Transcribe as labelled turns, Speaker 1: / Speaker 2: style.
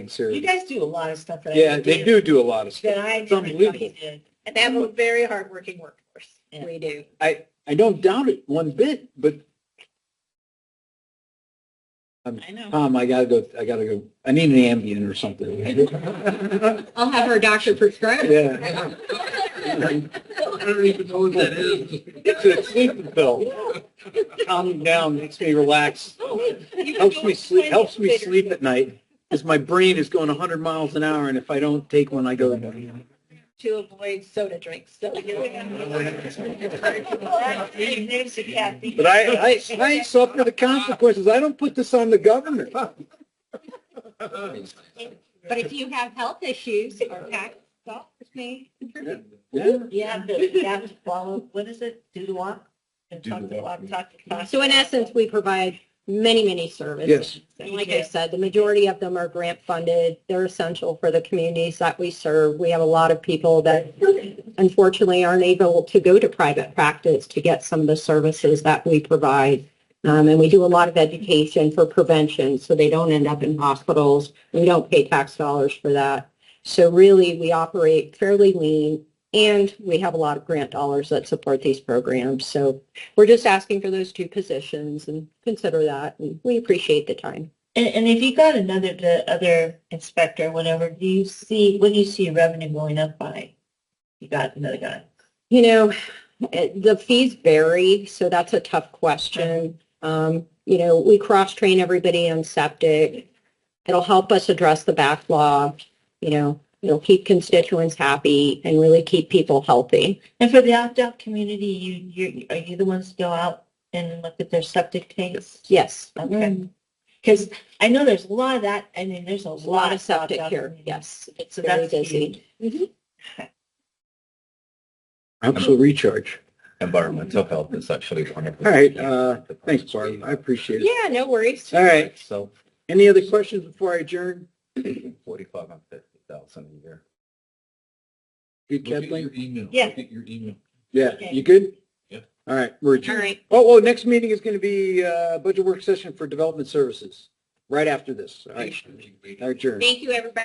Speaker 1: You
Speaker 2: considered.
Speaker 1: guys do a lot of stuff that I.
Speaker 2: Yeah, they
Speaker 1: didn't
Speaker 2: do do a lot of
Speaker 1: That
Speaker 2: stuff.
Speaker 1: I
Speaker 2: It's
Speaker 1: never thought
Speaker 2: unbelievable.
Speaker 1: you did. And they have a very hardworking workforce.
Speaker 2: Yeah.
Speaker 1: We do.
Speaker 2: I, I don't doubt it one bit, but
Speaker 1: I know.
Speaker 2: Tom, um, I gotta go, I gotta go, I need an Ambien or something.
Speaker 1: I'll have her doctor prescribe.
Speaker 2: Yeah. I don't even know what that is. It's a sleeping pill. Calms me down, makes me relax, helps me sleep, helps me sleep at night. Because my brain is going hundred miles an hour and if I don't take one, I go.
Speaker 1: To avoid soda drinks. So you There's the caffeine.
Speaker 2: But I, I, I suffer the consequences. I don't put this on the government.
Speaker 1: But if you have health issues or tax stuff, me.
Speaker 2: Yeah.
Speaker 1: You have to, you have to follow, what is it? Do the walk? And
Speaker 2: Do
Speaker 1: talk
Speaker 2: the
Speaker 1: the
Speaker 2: walk.
Speaker 1: walk, talk the talk.
Speaker 3: So in essence, we provide many, many services.
Speaker 2: Yes.
Speaker 3: And like I said, the majority of them are grant funded. They're essential for the communities that we serve. We have a lot of people that unfortunately aren't able to go to private practice to get some of the services that we provide. Um, and we do a lot of education for prevention so they don't end up in hospitals. We don't pay tax dollars for that. So really, we operate fairly lean and we have a lot of grant dollars that support these programs. So we're just asking for those two positions and consider that. And we appreciate the time.
Speaker 1: And, and if you got another, the other inspector, whatever, do you see, what do you see revenue going up by? You got another guy.
Speaker 3: You know, it- the fees vary, so that's a tough question. Um, you know, we cross-train everybody on septic. It'll help us address the backlog, you know, it'll keep constituents happy and really keep people healthy.
Speaker 1: And for the opt-out community, you, you, are you the ones to go out and look at their septic tanks?
Speaker 3: Yes, Mm-hmm.
Speaker 1: Okay. Because I know there's a lot of that, I mean, there's
Speaker 3: a
Speaker 1: a
Speaker 3: lot of septic
Speaker 1: opt-out
Speaker 3: here,
Speaker 1: communities.
Speaker 3: yes. It's
Speaker 1: So
Speaker 3: very
Speaker 1: that's huge.
Speaker 3: busy. Mm-hmm.
Speaker 2: Absolute recharge.
Speaker 4: environmental health is actually one of the.
Speaker 2: All right, uh, thanks, Barb. I appreciate it.
Speaker 3: Yeah, no worries.
Speaker 2: All right.
Speaker 4: So
Speaker 2: Any other questions before I adjourn?
Speaker 4: forty-five and fifty thousand a year.
Speaker 2: Good, Kathleen?
Speaker 4: email.
Speaker 1: Yeah.
Speaker 4: Look at your email.
Speaker 2: Yeah, you good?
Speaker 4: Yeah.
Speaker 2: All right, we're
Speaker 3: All
Speaker 2: adjourned.
Speaker 3: right.
Speaker 2: Oh, well, next meeting is going to be, uh, budget work session for development services, right after this. All right,
Speaker 4: Thanks.
Speaker 2: adjourned.
Speaker 3: Thank you, everybody.